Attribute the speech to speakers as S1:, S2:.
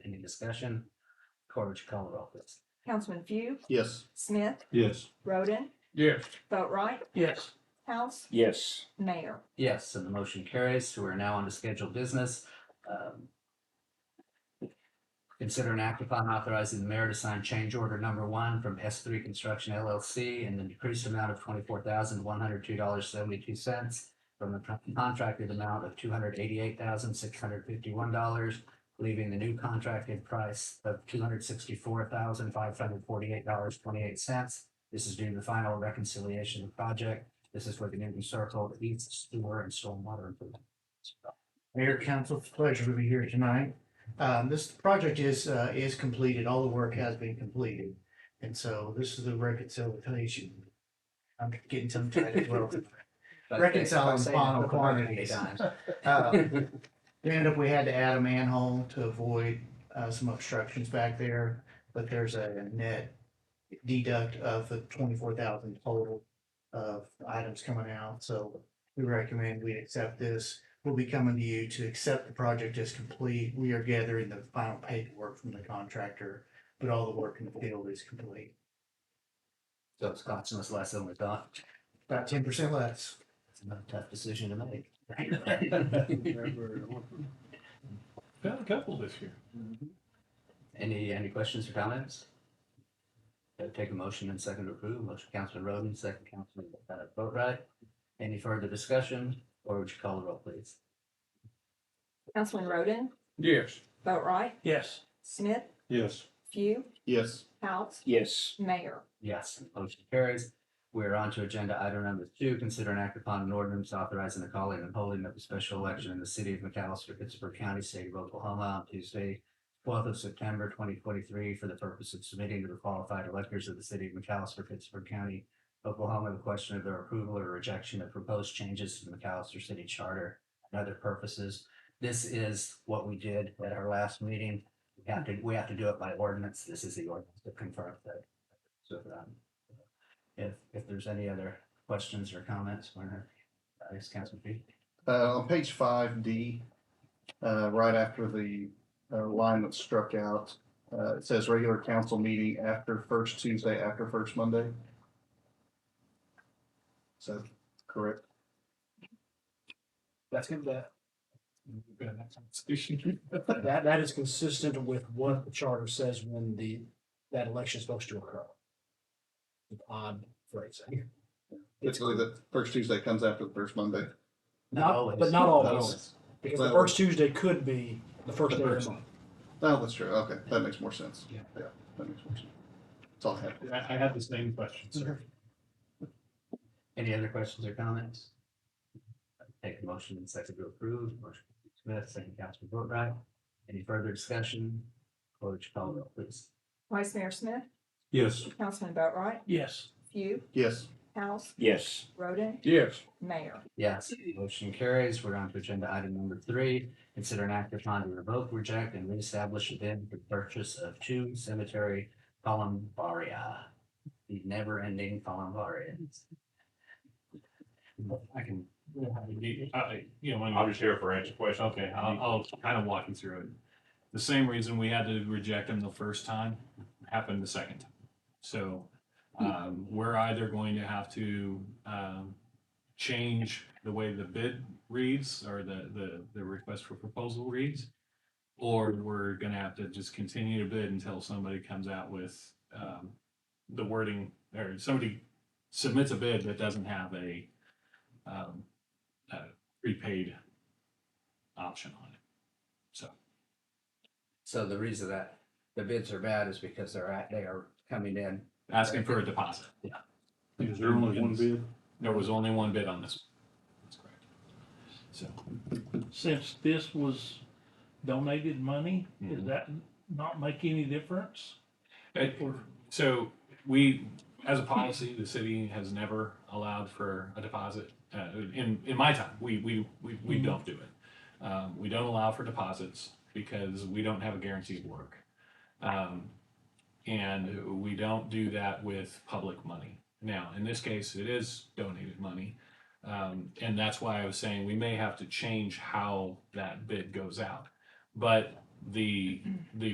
S1: discussion? Corr, would you call the roll, please?
S2: Councilman Few,
S3: Yes.
S2: Smith,
S3: Yes.
S2: Roden,
S4: Yes.
S2: Boatright,
S4: Yes.
S2: House,
S4: Yes.
S2: Mayor.
S1: Yes, and the motion carries. We're now on to scheduled business. Um, Consider an act upon authorizing the mayor to sign change order number one from S three Construction LLC in the decreased amount of twenty-four thousand, one hundred two dollars, seventy-two cents from the con- contracted amount of two hundred eighty-eight thousand, six hundred fifty-one dollars, leaving the new contracted price of two hundred sixty-four thousand, five hundred forty-eight dollars, twenty-eight cents. This is due to the final reconciliation of the project this is where the Newton Circle east sewer and stormwater improvement.
S5: Mayor, council, it's a pleasure to be here tonight. Um, this project is, uh, is completed. All the work has been completed. And so this is the reconciliation. I'm getting tongue tied as well.
S1: But they-
S5: Reconciling
S1: I'm saying
S5: final
S1: it took about
S5: quantities.
S1: eight times.
S5: Uh, We Ended up, we had to add a manhole to avoid, uh, some obstructions back there, but there's a net deduct of the twenty-four thousand total of items coming out, so we recommend we accept this. We'll be coming to you to accept the project as complete. We are gathering the final paperwork from the contractor, but all the work in the field is complete.
S1: So it's costing us less than we thought.
S5: About ten percent less.
S1: It's another tough decision to make.
S4: Got a couple this year.
S1: Any, any questions or comments? Uh, Take a motion and second to approve. Motion Councilman Roden, second Councilman uh, Boatright. Any further discussion or would you call the roll, please?
S2: Councilman Roden,
S4: Yes.
S2: Boatright,
S4: Yes.
S2: Smith,
S3: Yes.
S2: Few,
S3: Yes.
S2: House,
S4: Yes.
S2: Mayor.
S1: Yes, motion carries. We're on to agenda item number two, consider an act upon an ordinance authorizing the calling and holding of a special election in the city of McAllister, Pittsburgh County, state of Oklahoma on Tuesday, twelfth of September, twenty twenty-three, for the purpose of submitting to the qualified electors of the city of McAllister, Pittsburgh County, Oklahoma, the question of their approval or rejection of proposed changes to the McAllister City Charter and other purposes. This is what we did at our last meeting. We have to, we have to do it by ordinance. This is the ordinance that confirms that so um, if, if there's any other questions or comments, or, I guess Councilman Fee?
S3: Uh, on page five D, uh, right after the, uh, line that's struck out, uh, it says regular council meeting after first Tuesday, after first Monday. Is that correct?
S6: That's good, that. That, that is consistent with what the charter says when the, that election is supposed to occur. An Odd phrasing.
S3: Typically, the first Tuesday comes after the first Monday.
S6: Not,
S1: always.
S6: but not
S3: Not
S6: always,
S3: always.
S6: because the first Tuesday could be the first day of the month.
S3: Oh, that's true. Okay, that makes more sense.
S6: Yeah.
S3: Yeah, that makes more sense. That's all I have.
S7: I, I had the same question, sir.
S1: Any other questions or comments? Take a motion and second to approve, motion Smith, second Councilman Boatright. Any further discussion? Corriged call roll, please.
S2: Vice Mayor Smith,
S7: Yes.
S2: Councilman Boatright,
S6: Yes.
S2: Few,
S3: Yes.
S2: House,
S4: Yes.
S2: Roden,
S4: Yes.
S2: Mayor.
S1: Yes, motion carries. We're on to agenda item number three. Consider an act upon to revoke, reject, and reestablish a bid for purchase of two cemetery columbaria. The never-ending columbarians. I can
S7: I, you know, I'm just here for answer question. Okay, I'll, I'll kind of walk you through it. The same reason we had to reject them the first time happened the second time. So, um, we're either going to have to, um, change the way the bid reads or the, the, the request for proposal reads. Or we're gonna have to just continue to bid until somebody comes out with, um, the wording or somebody submits a bid that doesn't have a, um, uh, prepaid option on it. So,
S1: So the reason that the bids are bad is because they're at, they are coming in.
S7: asking for a deposit, yeah.
S8: Is there only one bid?
S7: There was only one bid on this. That's correct. So,
S9: since this was donated money, does
S7: Mhm.
S9: that not make any difference?
S7: it- so we, as a policy, the city has never allowed for a deposit. Uh, in, in my time, we, we, we, we
S9: Mm-hmm.
S7: don't do it. Um, we don't allow for deposits because we don't have a guarantee of work. Um, and we don't do that with public money. Now, in this case, it is donated money. Um, and that's why I was saying we may have to change how that bid goes out. But the, the